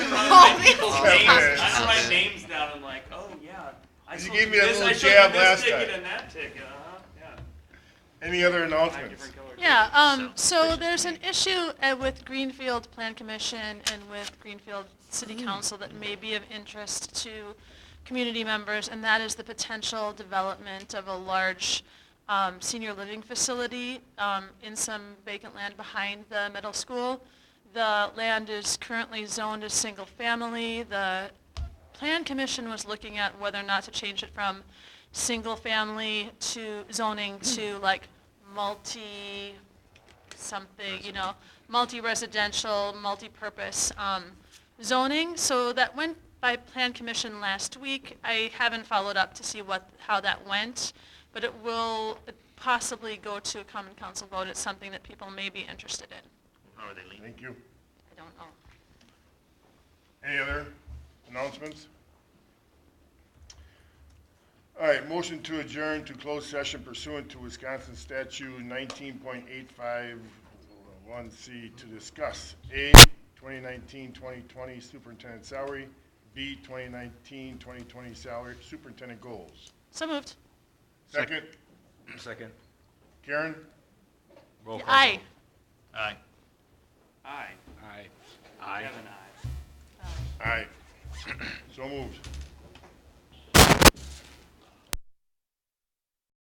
Names. I don't write names down, I'm like, oh, yeah. I You showed gave me that this, little I showed you jab this last ticket time. and that ticket, uh-huh, yeah. Any other Nine announcements? different colors. Yeah, um, so there's an issue uh, with Greenfield Plan Commission and with Greenfield City Council that may be of interest to community members, and that is the potential development of a large, um, senior living facility, um, in some vacant land behind the middle school. The land is currently zoned as single-family, the Plan Commission was looking at whether or not to change it from single-family to zoning to like multi, something, you know, multi-residential, multi-purpose um, zoning. So that went by Plan Commission last week. I haven't followed up to see what, how that went, but it will possibly go to a common council vote. It's something that people may be interested in. How are they leaning? Thank you. I don't know. Any other announcements? All right, motion to adjourn to closed session pursuant to Wisconsin statute nineteen point eight five one C to discuss A, 2019-2020 superintendent salary, B, 2019-2020 salary, superintendent goals. So moved. Second, Second. Karen? Roll call. Aye. Aye. Aye, Aye. I Aye. have an aye. Aye. So moved.